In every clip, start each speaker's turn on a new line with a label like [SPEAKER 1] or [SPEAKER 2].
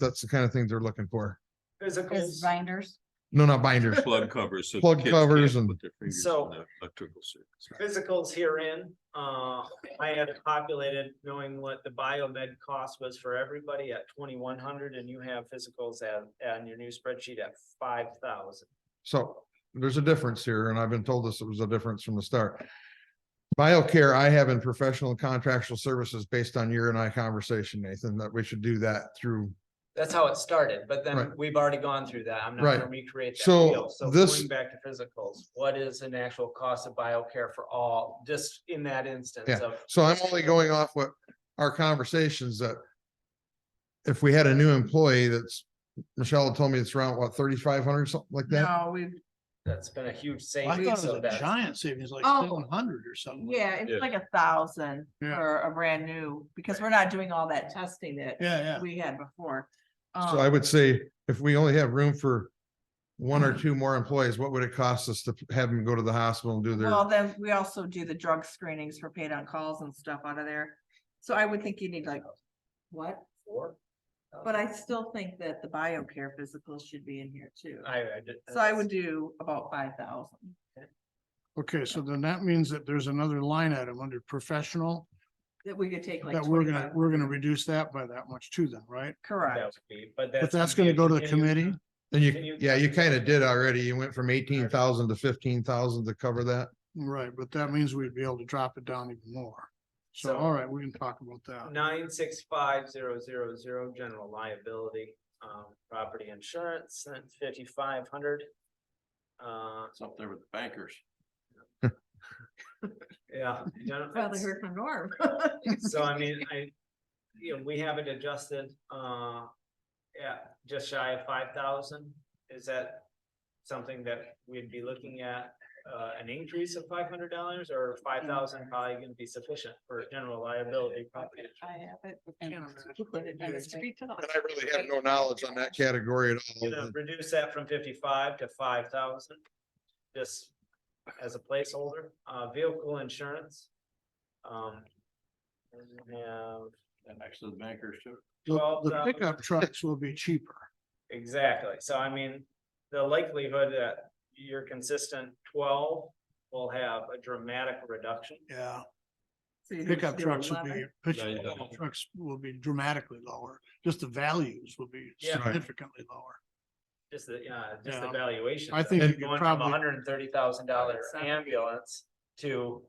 [SPEAKER 1] that's the kind of thing they're looking for.
[SPEAKER 2] Physicals.
[SPEAKER 3] Is binders.
[SPEAKER 1] No, not binders.
[SPEAKER 4] Plug covers. so
[SPEAKER 1] Plug
[SPEAKER 4] kids
[SPEAKER 1] covers
[SPEAKER 4] can't
[SPEAKER 1] and-
[SPEAKER 4] put their fingers
[SPEAKER 2] So-
[SPEAKER 4] in the electrical circuits.
[SPEAKER 2] physicals herein, uh, I had it populated knowing what the biomed cost was for everybody at twenty-one hundred, and you have physicals at, on your new spreadsheet at five thousand.
[SPEAKER 1] So there's a difference here, and I've been told this was a difference from the start. BioCare, I have in professional and contractual services based on your and I conversation, Nathan, that we should do that through.
[SPEAKER 2] That's how it started, but then
[SPEAKER 1] Right.
[SPEAKER 2] we've already gone through that. I'm not
[SPEAKER 1] Right.
[SPEAKER 2] gonna recreate that
[SPEAKER 1] So
[SPEAKER 2] wheel. So
[SPEAKER 1] this-
[SPEAKER 2] going back to physicals, what is an actual cost of biocare for all, just in that instance
[SPEAKER 1] Yeah.
[SPEAKER 2] of?
[SPEAKER 1] So I'm only going off what our conversations that if we had a new employee that's, Michelle told me it's around what, thirty-five hundred, something like that?
[SPEAKER 3] No, we've,
[SPEAKER 2] That's been a huge
[SPEAKER 5] Well, I
[SPEAKER 2] savings.
[SPEAKER 5] thought
[SPEAKER 2] so
[SPEAKER 5] it was a
[SPEAKER 2] that's-
[SPEAKER 5] giant savings, like
[SPEAKER 3] Oh.
[SPEAKER 5] seven hundred or something.
[SPEAKER 4] Yeah.
[SPEAKER 3] yeah, it's like a thousand
[SPEAKER 5] Yeah.
[SPEAKER 3] for a brand new, because we're not doing all that testing that
[SPEAKER 5] Yeah, yeah.
[SPEAKER 3] we had before. Um,
[SPEAKER 1] So I would say if we only have room for one or two more employees, what would it cost us to have them go to the hospital and do their?
[SPEAKER 3] Well, then we also do the drug screenings for paid on calls and stuff out of there. So I would think you need like, what?
[SPEAKER 2] Four?
[SPEAKER 3] But I still think that the BioCare physicals should be in here too.
[SPEAKER 2] I, I did.
[SPEAKER 3] So I would do about five thousand.
[SPEAKER 5] Okay, so then that means that there's another line item under professional
[SPEAKER 3] That we could take like.
[SPEAKER 5] that we're gonna,
[SPEAKER 3] 25.
[SPEAKER 5] we're gonna reduce that by that much too then, right?
[SPEAKER 2] That
[SPEAKER 3] Correct.
[SPEAKER 2] would be, But that's.
[SPEAKER 5] But that's
[SPEAKER 2] gonna
[SPEAKER 5] gonna
[SPEAKER 2] be
[SPEAKER 5] go to
[SPEAKER 2] a
[SPEAKER 5] the committee.
[SPEAKER 2] continued-
[SPEAKER 1] And
[SPEAKER 2] Can you-
[SPEAKER 1] you, yeah, you kind of did already. You went from eighteen thousand to fifteen thousand to cover that.
[SPEAKER 5] Right, but that means we'd be able to drop it down even more. So,
[SPEAKER 2] So-
[SPEAKER 5] all right, we can talk about that.
[SPEAKER 2] nine six five zero zero zero, general liability, um, property insurance, and fifty-five hundred. Uh,
[SPEAKER 4] It's up there with the bankers.
[SPEAKER 2] yeah. gen-
[SPEAKER 3] Probably heard from Norm.
[SPEAKER 2] So I mean, I, you know, we have it adjusted, uh, yeah, just shy of five thousand. Is that something that we'd be looking at, uh, an increase of five hundred dollars or five thousand probably gonna be sufficient for general liability property? insurance?
[SPEAKER 3] I have it.
[SPEAKER 5] And-
[SPEAKER 1] I really have no knowledge on that category at
[SPEAKER 2] gonna
[SPEAKER 1] all.
[SPEAKER 2] reduce that from fifty-five to five thousand. Just as a placeholder, uh, vehicle insurance. Um. and we have-
[SPEAKER 4] And actually the bankers too.
[SPEAKER 5] The- The
[SPEAKER 2] 12,000.
[SPEAKER 5] pickup trucks will be cheaper.
[SPEAKER 2] exactly, so I mean, the likelihood that your consistent twelve will have a dramatic reduction.
[SPEAKER 5] Yeah,
[SPEAKER 3] So you
[SPEAKER 5] pickup
[SPEAKER 3] do
[SPEAKER 5] trucks will
[SPEAKER 3] 11.
[SPEAKER 5] be,
[SPEAKER 4] No, you
[SPEAKER 5] pickup
[SPEAKER 4] don't.
[SPEAKER 5] trucks will be dramatically lower. Just the values will be
[SPEAKER 2] Yeah.
[SPEAKER 1] Right.
[SPEAKER 5] significantly lower.
[SPEAKER 2] Just the, uh, just the
[SPEAKER 5] Yeah.
[SPEAKER 2] valuation.
[SPEAKER 5] I
[SPEAKER 2] of it.
[SPEAKER 5] think you could
[SPEAKER 2] Going from a
[SPEAKER 5] probably-
[SPEAKER 2] hundred and thirty thousand dollar
[SPEAKER 3] Seven.
[SPEAKER 2] ambulance to.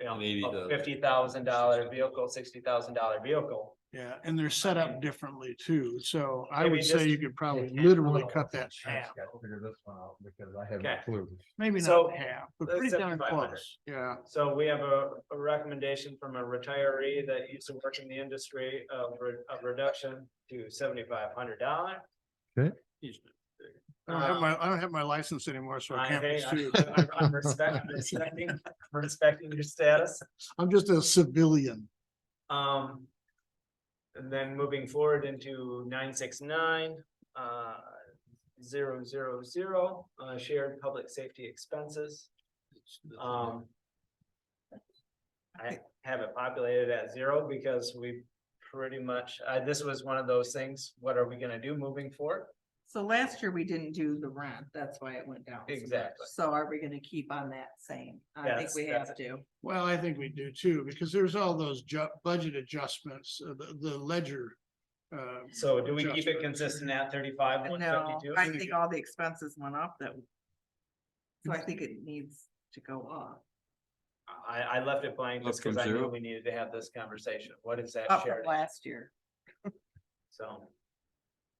[SPEAKER 4] An
[SPEAKER 2] You know,
[SPEAKER 4] $80,000.
[SPEAKER 2] a fifty thousand dollar vehicle, sixty thousand dollar vehicle.
[SPEAKER 5] Yeah, and they're set up differently too, so I
[SPEAKER 2] Maybe
[SPEAKER 5] would say
[SPEAKER 2] just-
[SPEAKER 5] you could probably literally cut that in half,
[SPEAKER 1] Because I have
[SPEAKER 2] no Okay.
[SPEAKER 1] clue.
[SPEAKER 5] maybe
[SPEAKER 2] So,
[SPEAKER 5] not in half, but
[SPEAKER 2] that's
[SPEAKER 5] pretty darn
[SPEAKER 2] 7,500.
[SPEAKER 5] close, yeah.
[SPEAKER 2] So we have a, a recommendation from a retiree that used to work in the industry of, re- of reduction to seventy-five hundred dollar.
[SPEAKER 5] I don't
[SPEAKER 2] Uh,
[SPEAKER 5] have my, I don't have my license anymore, so I can't pursue,
[SPEAKER 2] I'm respecting, respecting, respecting your status,
[SPEAKER 5] I'm just a civilian.
[SPEAKER 2] um. And then moving forward into nine six nine, uh, zero zero zero, uh, shared public safety expenses. Um. I have it populated at zero because we pretty much, uh, this was one of those things, what are we gonna do moving forward?
[SPEAKER 3] So last year we didn't do the rent, that's why it went down. so much.
[SPEAKER 2] Exactly.
[SPEAKER 3] So are we gonna keep on that same? I think
[SPEAKER 2] Yes,
[SPEAKER 3] we
[SPEAKER 2] that's
[SPEAKER 3] have to.
[SPEAKER 5] Well, I think we do too, because there's all those ju- budget adjustments, uh, the, the ledger. uh,
[SPEAKER 2] So do we keep it
[SPEAKER 5] adjustments.
[SPEAKER 2] consistent at thirty-five, one
[SPEAKER 3] No,
[SPEAKER 2] fifty-two?
[SPEAKER 3] I think all the expenses went up that. So I think it needs to go up,
[SPEAKER 2] I, I left it blank just
[SPEAKER 4] Up from
[SPEAKER 2] because I knew
[SPEAKER 4] zero?
[SPEAKER 2] we needed to have this conversation. What is that
[SPEAKER 3] up from
[SPEAKER 2] shared?
[SPEAKER 3] last year.
[SPEAKER 2] So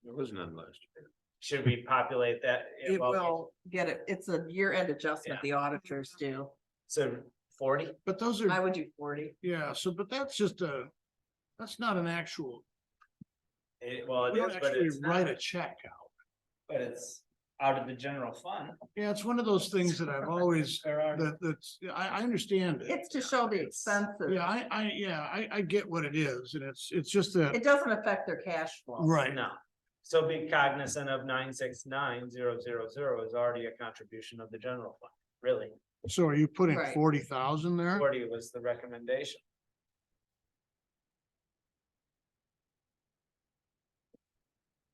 [SPEAKER 4] There was none last year.
[SPEAKER 2] should we populate that?
[SPEAKER 3] It
[SPEAKER 2] Well,
[SPEAKER 3] will get it, it's a year-end adjustment the auditors do.
[SPEAKER 2] So forty?
[SPEAKER 5] But those
[SPEAKER 3] I
[SPEAKER 5] are,
[SPEAKER 3] would do forty.
[SPEAKER 5] yeah, so, but that's just a, that's not an actual,
[SPEAKER 2] It, well, it
[SPEAKER 5] we don't
[SPEAKER 2] is, but
[SPEAKER 5] actually
[SPEAKER 2] it's
[SPEAKER 5] write a
[SPEAKER 2] not,
[SPEAKER 5] check out.
[SPEAKER 2] but it's out of the general fund.
[SPEAKER 5] Yeah, it's one of those things that I've always,
[SPEAKER 2] There are-
[SPEAKER 5] that, that's, I, I understand. it.
[SPEAKER 3] It's to show the expenses.
[SPEAKER 5] Yeah, I, I, yeah, I, I get what it is, and it's, it's just that,
[SPEAKER 3] It doesn't affect their cash flow.
[SPEAKER 5] right,
[SPEAKER 2] No. So be cognizant of nine, six, nine, zero, zero, zero is already a contribution of the general fund, really.
[SPEAKER 5] so are you putting
[SPEAKER 3] Right.
[SPEAKER 5] forty thousand there?
[SPEAKER 2] Forty was the recommendation.